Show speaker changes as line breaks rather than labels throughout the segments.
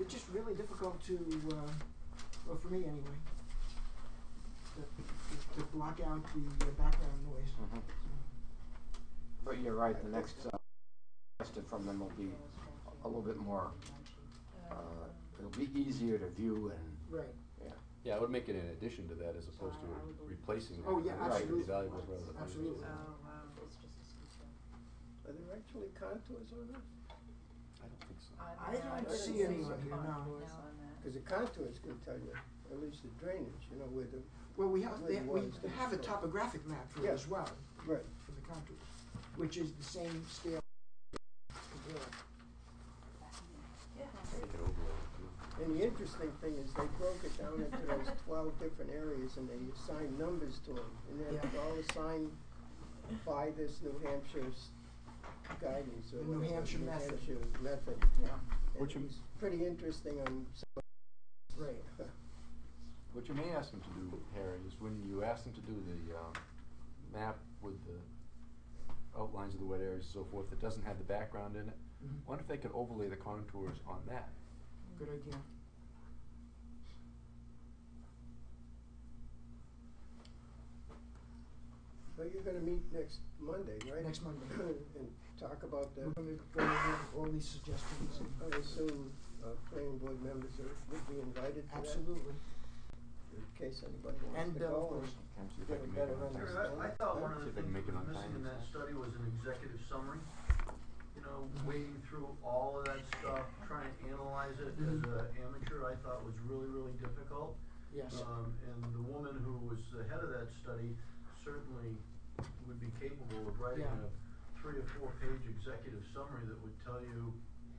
it's just really difficult to, uh, well, for me anyway, to, to, to block out the uh, background noise.
Mhm. But you're right, the next, uh, question from them will be a little bit more, uh, it'll be easier to view and,
Right.
Yeah, I would make it an addition to that as opposed to replacing.
Oh, yeah,
it. I think it'd be
absolutely.
valuable rather than-
Absolutely.
Oh, wow.
Are there actually contours on that?
I don't think so.
I don't
see
anyone here, no.
Because the contours can tell you, at least the drainage, you know, where the,
Well, we have,
Well,
they,
it
we
was,
have a
so-
topographic map for it
Yeah.
as well,
right,
for the contours, which is the same scale.
Make it overlay it, too.
and the interesting thing is they broke it down into those twelve different areas and they assigned numbers to them. And then it's
Yeah.
all assigned by this New Hampshire's guidance or
The New
whatever,
Hampshire
New
method.
Hampshire method.
Yeah.
And
Which
it
am-
was pretty interesting on some,
Right.
What you may ask them to do, Harry, is when you ask them to do the, um, map with the outlines of the wet areas and so forth, that doesn't have the background in it,
Mhm.
wonder if they could overlay the contours on that?
Good idea.
so you're gonna meet next Monday, right?
Next Monday.
And talk about the,
We're gonna go over all these suggestions and,
I assume, uh, planning board members are, would be invited to that?
absolutely.
In case anybody wants
And
to
Bill, of
go and
course.
Can't you
get a
make it
better
on
understanding.
I,
Tuesday?
I thought one of the
See if they can
things
make it
that was
on
missing in
time.
that study was an executive summary. You know,
Mm-hmm.
wading through all of that stuff, trying to analyze it as
Mhm.
Mm-hmm.
an amateur, I thought was really, really difficult.
Yes.
Um, and the woman who was the head of that study certainly would be capable of writing
Yeah.
a three or four page executive summary that would tell you,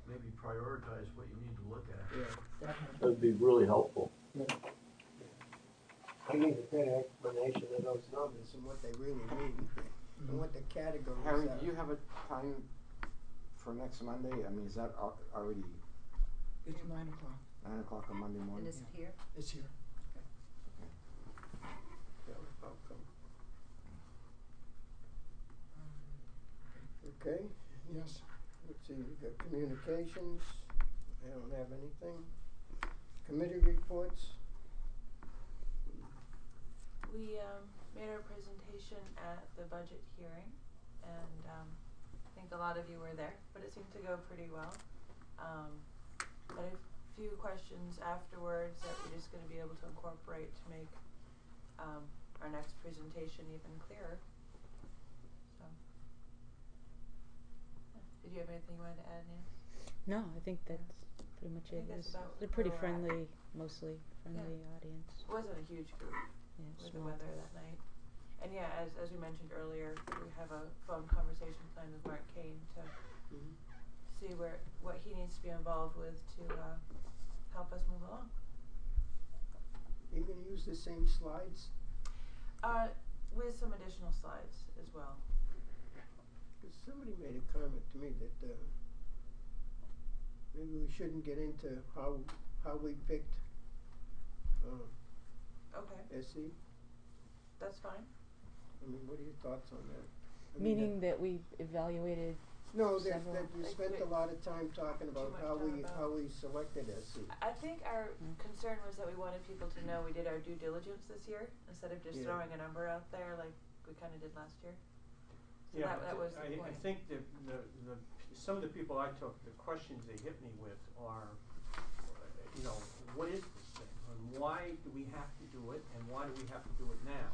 maybe prioritize what you need to look at.
Yeah,
That happened.
That'd be really helpful.
I need a better explanation of those numbers and what they really mean, and what the categories are.
Mm-hmm. Harry, do you have a time for next Monday? I mean, is that al- already
It's nine o'clock.
nine o'clock on Monday
And
morning?
is it here?
It's here.
Yeah, I'll come. Okay,
Yes.
let's see, we've got communications, I don't have anything. Committee reports,
We um, made our presentation at the budget hearing, and um, I think a lot of you were there, but it seemed to go pretty well. Um, had a few questions afterwards that we're just going to be able to incorporate to make um, our next presentation even clearer. So, yeah. did you have anything you wanted to add, Nancy?
No, I think that's pretty much
I think
it.
that's
It's
about
a pretty
where we're at.
friendly, mostly friendly audience.
It wasn't a huge group.
Yeah,
with the
small.
weather that night. And yeah, as, as we mentioned earlier, we have a phone conversation planned with Mark Kane to
Mhm.
Mm-hmm.
see where, what he needs to be involved with to, uh, help us move along.
you gonna use the same slides?
Uh, with some additional slides as well.
Cause somebody made a comment to me that, uh, maybe we shouldn't get into how, how we picked, uh,
Okay,
SE,
that's fine.
I mean, what are your thoughts on that? I mean,
Meaning that we evaluated
No, that,
several-
that you
Like,
spent a
wait.
lot of time talking about
much
how
time
we,
about-
how we selected SE.
I think our
Mm.
concern was that we wanted people to know we did our due diligence this year instead of just
Yeah.
throwing a number out there like we kinda did last year. So
Yeah,
that, that
but
was the
I- I
point.
think the, the, the, some of the people I took, the questions they hit me with are, you know, what is this thing? And why do we have to do it, and why do we have to do it now?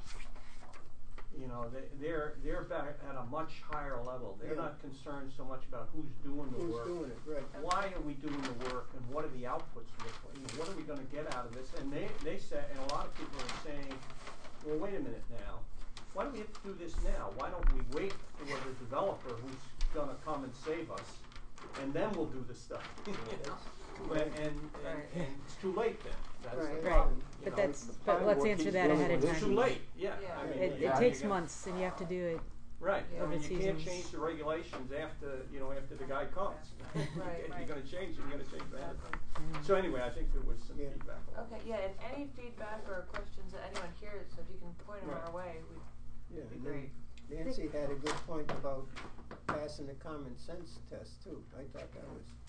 You know, they, they're, they're back at a much higher level, they're
Yeah.
not concerned so much about who's doing the
Who's
work.
doing it, right?
Why are we doing the work, and what are the outputs of it, you know, what are we gonna get out of this? And they, they said, and a lot of people are saying, well, wait a minute now, why do we have to do this now? Why don't we wait for the developer who's gonna come and save us, and then we'll do the stuff? You know? But- And, and,
Right.
and it's too late then, that's the
Right.
problem,
Right.
you
But
know?
that's-
The
but
planning
let's
board
answer
keeps
that
dealing
ahead
with
of
this.
It's too late, yeah,
Yeah.
I mean,
it.
yeah,
It
you
takes
got-
months, and you have to do it.
Right,
Yeah.
I mean,
Open
you can't
seasons.
change the regulations after, you know, after the guy comes.
Right,
You're
right.
gonna change, it, you're gonna change that.
Exactly.
Um,
and
So anyway, I think there was some
Yeah.
feedback. on that.
Okay, yeah, and any feedback or questions that anyone hears, if you can point them
Right.
our way, we'd
Yeah,
be
and
great.
then Nancy had a good point about passing the common sense test too, I thought that was